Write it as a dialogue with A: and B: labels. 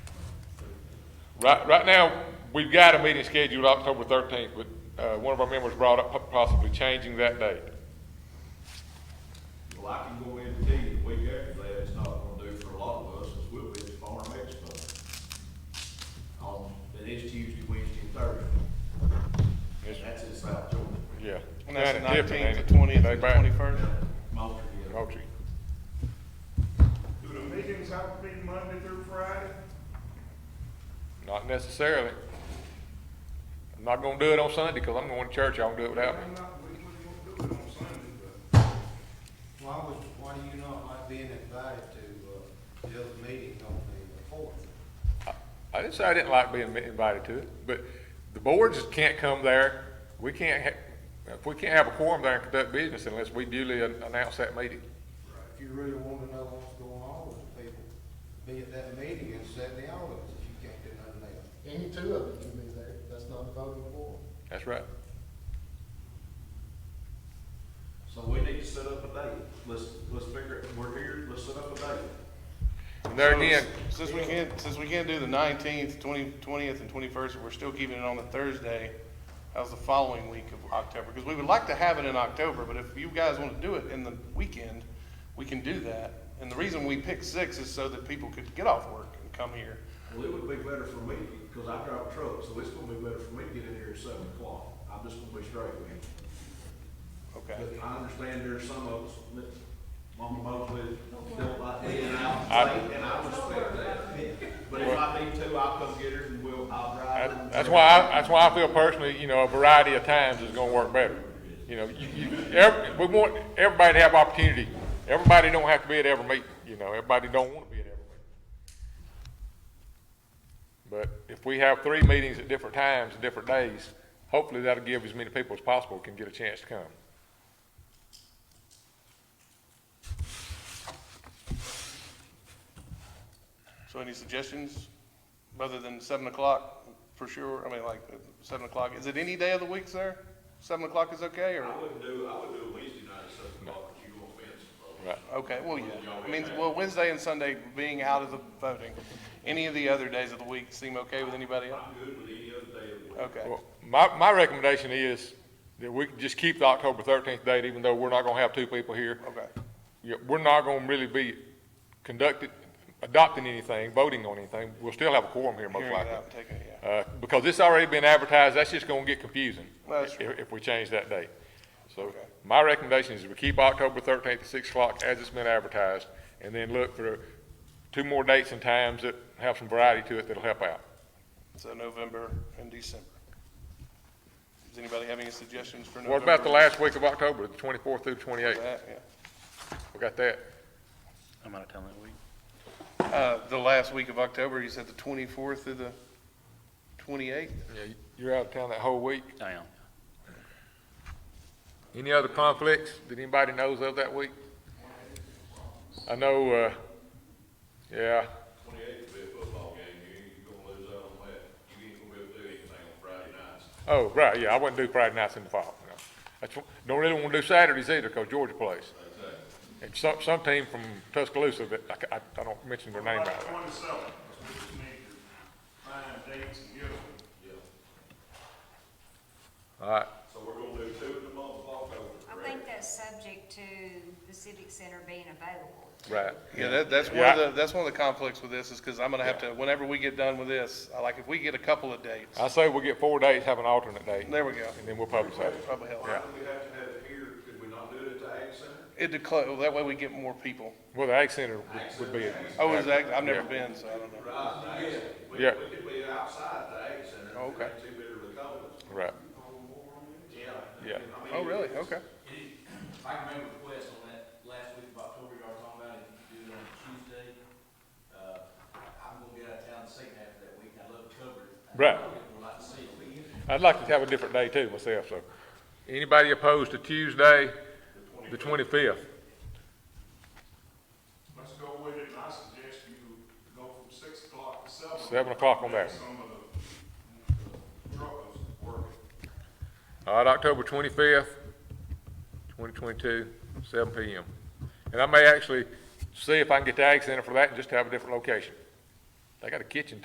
A: Right, right now, we've got a meeting scheduled October thirteenth, but, uh, one of our members brought up po- possibly changing that date.
B: Well, I can go ahead and tell you the week after that, it's not gonna do for a lot of us, as we'll be at the Farm Expo. On, that is Tuesday, Wednesday, and Thursday.
A: Yes,
B: And that's in South Georgia.
A: Yeah.
C: And that's the
A: Kinda different, ain't
C: nineteenth,
A: it?
C: the twentieth,
A: They
C: and the
A: back-
C: twenty-first?
B: Moultrie, yeah.
A: Moultrie.
D: Do the meetings have to be Monday through Friday?
A: Not necessarily. I'm not gonna do it on Sunday, cause I'm going to church, I won't do it without
D: We're
A: me.
D: not- we- we gonna do it on Sunday, but-
E: Why would, why do you not like being invited to, uh, the other meeting on the fourth?
A: I- I didn't say I didn't like being invited to it, but the boards can't come there, we can't ha- if we can't have a quorum there and conduct business unless we duly an- announce that meeting.
E: If you really want to know what's going on with the people, be at that meeting and set the hours, if you can't do nothing else.
F: Any two of you can be there, that's not a voting for.
A: That's right.
B: So we need to set up a date, let's, let's figure it, we're here, let's set up a date.
A: And there again,
C: Since we can't, since we can't do the nineteenth, twenty, twentieth, and twenty-first, we're still keeping it on the Thursday, how's the following week of October? Because we would like to have it in October, but if you guys want to do it in the weekend, we can do that. And the reason we picked six is so that people could get off work and come here.
B: Well, it would be better for me, because I drive a truck, so it's gonna be better for me to get in here at seven o'clock, I'm just gonna be straight with you.
C: Okay.
B: But I understand there's some of us that, Mama Mosley, don't like being out
A: I-
B: late, and I respect that. But if I need to, I'll come get her and we'll, I'll drive her.
A: that-
B: and-
A: that's why, I- that's why I feel personally, you know, a variety of times is gonna work better. You know, you, you, ev- we want everybody to have opportunity. Everybody don't have to be at every meeting, you know, everybody don't wanna be at every meeting. But if we have three meetings at different times, and different days, hopefully that'll give as many people as possible can get a chance to come.
C: So any suggestions, other than seven o'clock, for sure, I mean, like, uh, seven o'clock, is it any day of the week, sir? Seven o'clock is okay, or,
B: I wouldn't do, I would do a Wednesday night at seven o'clock, but you won't be in some
A: Right.
C: okay, well, yeah, I mean, well, Wednesday and Sunday being out of the voting, any of the other days of the week seem okay with anybody
B: trouble.
C: else?
B: I'm good with any other day of the week.
C: Okay,
A: Well, my, my recommendation is that we can just keep the October thirteenth date, even though we're not gonna have two people here.
C: okay,
A: Yeah, we're not gonna really be conducted, adopting anything, voting on anything. We'll still have a quorum here most
C: hearing it out,
A: likely.
C: and taking it, yeah.
A: Uh, because it's already been advertised, that's just gonna get confusing
C: Well, that's
A: if, if we change that date. So
C: Okay.
A: my recommendation is we keep October thirteenth at six o'clock as it's been advertised, and then look for two more dates and times that have some variety to it that'll help out.
C: So November and December. Does anybody have any suggestions for November?
A: What about the last week of October, the twenty-fourth through twenty-eighth?
C: That, yeah.
A: We got that.
G: I'm out of town that week.
C: Uh, the last week of October, you said the twenty-fourth through the twenty-eighth?
A: Yeah, You're out of town that whole week.
G: I am.
A: Any other conflicts that anybody knows of that week? I know, uh, yeah,
B: Twenty-eighth will be a football game, you ain't gonna lose out on that, you ain't gonna be able to do anything on Friday nights.
A: oh, right, yeah, I wouldn't do Friday nights in the fall, no. That's, wh- don't really wanna do Saturdays either, cause Georgia plays. And some, some team from Tuscaloosa that, I ca- I, I don't mention their name
D: Like
A: out loud.
D: Twenty-seven, we just need to find dates and get them.
A: All right,
B: So we're gonna do two in the month of October.
H: I think that's subject to the civic center being available.
A: right.
C: Yeah, that, that's one
A: Yeah.
C: of the, that's one of the conflicts with this is because I'm gonna have to, whenever we get done with this, I like if we get a couple of dates,
A: I say we get four days, have an alternate date,
C: there we go.
A: and then we'll publicize it.
C: Probably help.
B: Why do we have to have it here, could we not do it at the Ag Center?
C: It declares, well, that way we get more people.
A: Well, the Ag Center would- would be.
C: Oh, is that, I've never
A: Yeah.
C: been, so I don't know.
B: Right, yeah, Oh, we,
A: Yeah.
B: we could be outside the Ag Center.
C: Okay.
B: Too bitter of the cold.
A: Right,
B: Yeah.
A: yeah.
B: I mean,
C: Oh, really? Okay.
I: If I can make a request on that last week of October, y'all were talking about if you could do it on Tuesday, uh, I'm gonna be out of town the second half of that week, I'd love to cover it.
A: Right.
I: I'd like to see it.
A: I'd like to have a different day too myself, so. Anybody opposed to Tuesday, the twenty-fifth?
D: Let's go with it, and I suggest you go from six o'clock to seven.
A: Seven o'clock on that one.
D: Some of the truckers working.
A: All right, October twenty-fifth, twenty twenty-two, seven P M. And I may actually see if I can get the Ag Center for that and just have a different location. They got a kitchen